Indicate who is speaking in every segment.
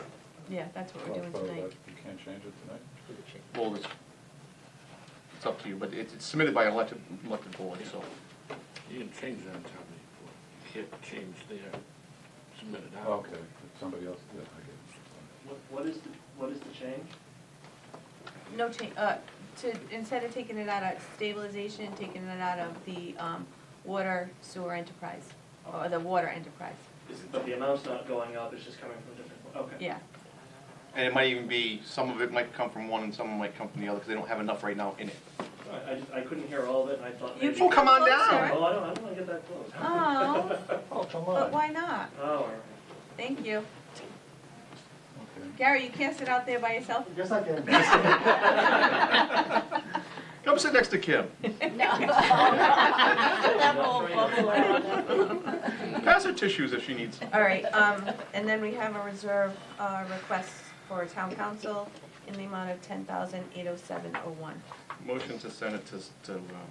Speaker 1: Yeah, that's what we're doing
Speaker 2: Well,
Speaker 1: tonight.
Speaker 2: that- You can't change it tonight?
Speaker 3: Well, it's, it's up to you, but it's it's submitted by elected, elected board, so.
Speaker 4: You can change that on town meeting floor. You can't change there, submit it out.
Speaker 2: Okay, if somebody else did, I get
Speaker 5: What, what is the, what is the change?
Speaker 1: No change, uh, to, instead of taking it out of stabilization, taking it out of the, um, water sewer enterprise, or the water enterprise,
Speaker 5: Is, but the amount's not going up, it's just coming from different, okay.
Speaker 1: yeah.
Speaker 3: And it might even be, some of it might come from one and some might come from the other, because they don't have enough right now in it.
Speaker 5: I, I just, I couldn't hear all of it, and I thought
Speaker 1: You
Speaker 5: maybe.
Speaker 1: can
Speaker 3: Oh, come on
Speaker 1: closer.
Speaker 3: down.
Speaker 5: Oh, I don't, I don't wanna get that close.
Speaker 1: Oh,
Speaker 2: it. Oh, come
Speaker 1: but why not?
Speaker 5: Oh, all right.
Speaker 1: Thank you.
Speaker 2: Okay.
Speaker 1: Gary, you can't sit out there by yourself.
Speaker 5: Guess I can.
Speaker 3: Come sit next to Kim.
Speaker 6: That whole bubble around that.
Speaker 3: Pass her tissues if she needs.
Speaker 1: All right, um, and then we have a reserve, uh, request for town council in the amount of ten thousand eight oh seven oh one.
Speaker 3: Motion to send it to, to uh,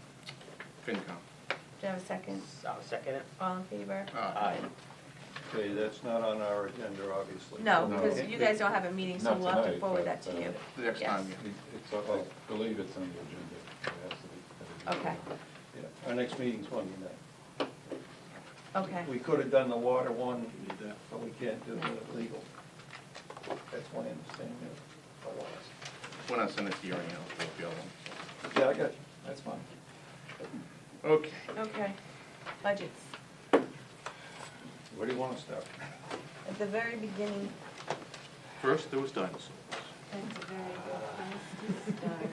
Speaker 3: FinCom.
Speaker 1: Do you have a second?
Speaker 6: I'll second it.
Speaker 1: All in favor?
Speaker 3: Aye.
Speaker 7: Okay, that's not on our agenda, obviously.
Speaker 1: No,
Speaker 2: No.
Speaker 1: because you guys don't have a meeting, so
Speaker 2: Not
Speaker 1: we'll have to
Speaker 2: tonight,
Speaker 1: forward that
Speaker 2: but,
Speaker 1: to you.
Speaker 2: uh,
Speaker 3: The next time, yeah.
Speaker 2: It's, I believe it's on the agenda. It has to be-
Speaker 1: Okay.
Speaker 7: Yeah, Our next meeting's Monday night.
Speaker 1: Okay,
Speaker 7: We could have done the water one, but we can't do the legal. That's my understanding of the laws.
Speaker 3: When I send it to you, I'll fill the other one.
Speaker 7: Yeah, I got you, that's fine.
Speaker 3: Okay,
Speaker 1: okay. Budgets,
Speaker 7: Where do you want to start?
Speaker 1: at the very beginning.
Speaker 3: first there was dinosaurs.
Speaker 6: That's a very good place to
Speaker 1: start.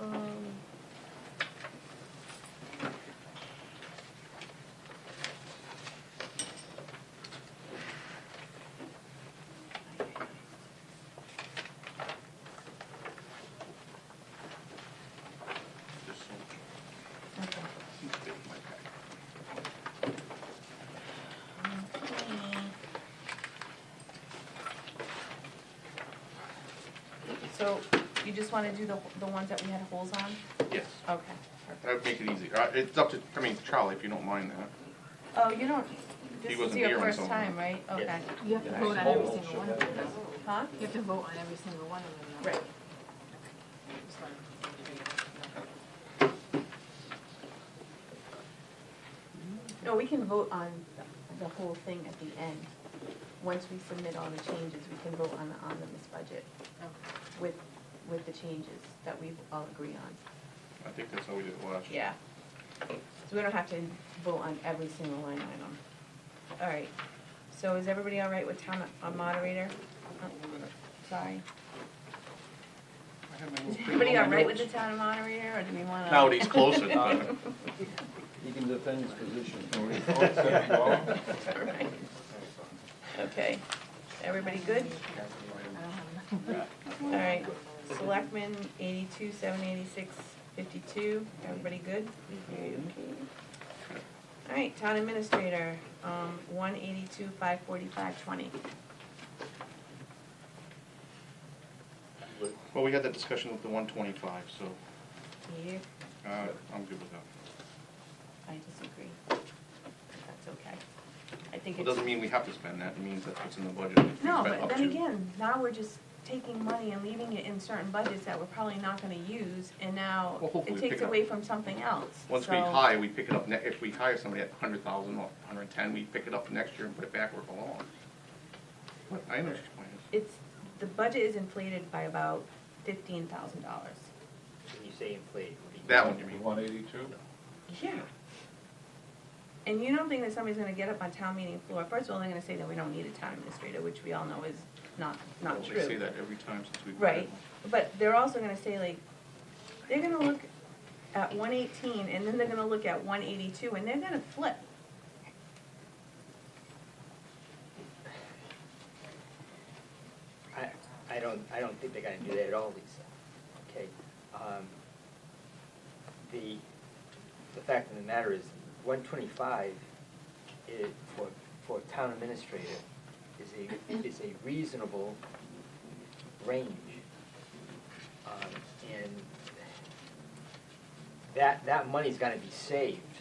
Speaker 1: Um,
Speaker 3: Just so-
Speaker 1: okay. So you just want to do the, the ones that we had holes on?
Speaker 3: Yes,
Speaker 1: Okay.
Speaker 3: that would make it easier. Uh, It's up to, I mean, Charlie, if you don't mind that.
Speaker 1: Oh, you don't,
Speaker 3: He
Speaker 1: this is
Speaker 3: wasn't
Speaker 1: your
Speaker 3: here when
Speaker 1: first
Speaker 3: someone-
Speaker 1: time, right? Okay.
Speaker 6: You have to vote on every single one of them.
Speaker 1: Huh?
Speaker 6: You have to vote on every single one of them. though.
Speaker 1: Right.
Speaker 6: Just like-
Speaker 1: No, we can vote on the- the whole thing at the end. Once we submit all the changes, we can vote on the omnibus budget
Speaker 6: Okay.
Speaker 1: with, with the changes that we all agree on.
Speaker 3: I think that's how we did it last year.
Speaker 1: Yeah. So we don't have to vote on every single line item. All right, so is everybody all right with town uh, moderator? Uh, Sorry.
Speaker 3: I had my little
Speaker 1: Is
Speaker 3: thing
Speaker 1: everybody
Speaker 3: on
Speaker 1: all
Speaker 3: my
Speaker 1: right with the
Speaker 3: notes.
Speaker 1: town moderator, or do we wanna?
Speaker 3: Now that he's closer, uh,
Speaker 7: He can defend his position.
Speaker 1: Alright. Okay, everybody good?
Speaker 6: I don't have enough.
Speaker 1: All right, selectmen, eighty-two, seven eighty-six, fifty-two, everybody good? All right, town administrator, um, one eighty-two, five forty-five, twenty.
Speaker 3: well, we had that discussion with the one twenty-five, so,
Speaker 1: Yeah,
Speaker 3: uh, I'm good with that.
Speaker 1: I disagree. That's okay. I think
Speaker 3: It
Speaker 1: it's,
Speaker 3: doesn't mean we have to spend that, it means that's what's in the budget. We
Speaker 1: no, but
Speaker 3: spent up
Speaker 1: then
Speaker 3: to.
Speaker 1: again, now we're just taking money and leaving it in certain budgets that we're probably not gonna use, and now
Speaker 3: Well, hopefully
Speaker 1: it
Speaker 3: we
Speaker 1: takes
Speaker 3: pick up.
Speaker 1: away from something else,
Speaker 3: Once we
Speaker 1: so-
Speaker 3: hire, we pick it up, ne- if we hire somebody at hundred thousand or hundred and ten, we pick it up next year and put it back where it belongs. But I know what your point is.
Speaker 1: It's, the budget is inflated by about fifteen thousand dollars.
Speaker 8: When you say inflated, what do you?
Speaker 3: That one, you mean?
Speaker 2: One eighty-two?
Speaker 1: Yeah. And you don't think that somebody's gonna get up on town meeting floor, first of all, they're gonna say that we don't need a town administrator, which we all know is not, not
Speaker 3: Well,
Speaker 1: true.
Speaker 3: They say that every time since we've. hired
Speaker 1: Right,
Speaker 3: one.
Speaker 1: but they're also gonna say like, they're gonna look at one eighteen and then they're gonna look at one eighty-two and they're gonna flip.
Speaker 8: I, I don't, I don't think they're gonna do that at all, Lisa, okay? Um, The, the fact of the matter is, one twenty-five is, for, for a town administrator, is a, is a reasonable range. Um, And that, that money's gonna be saved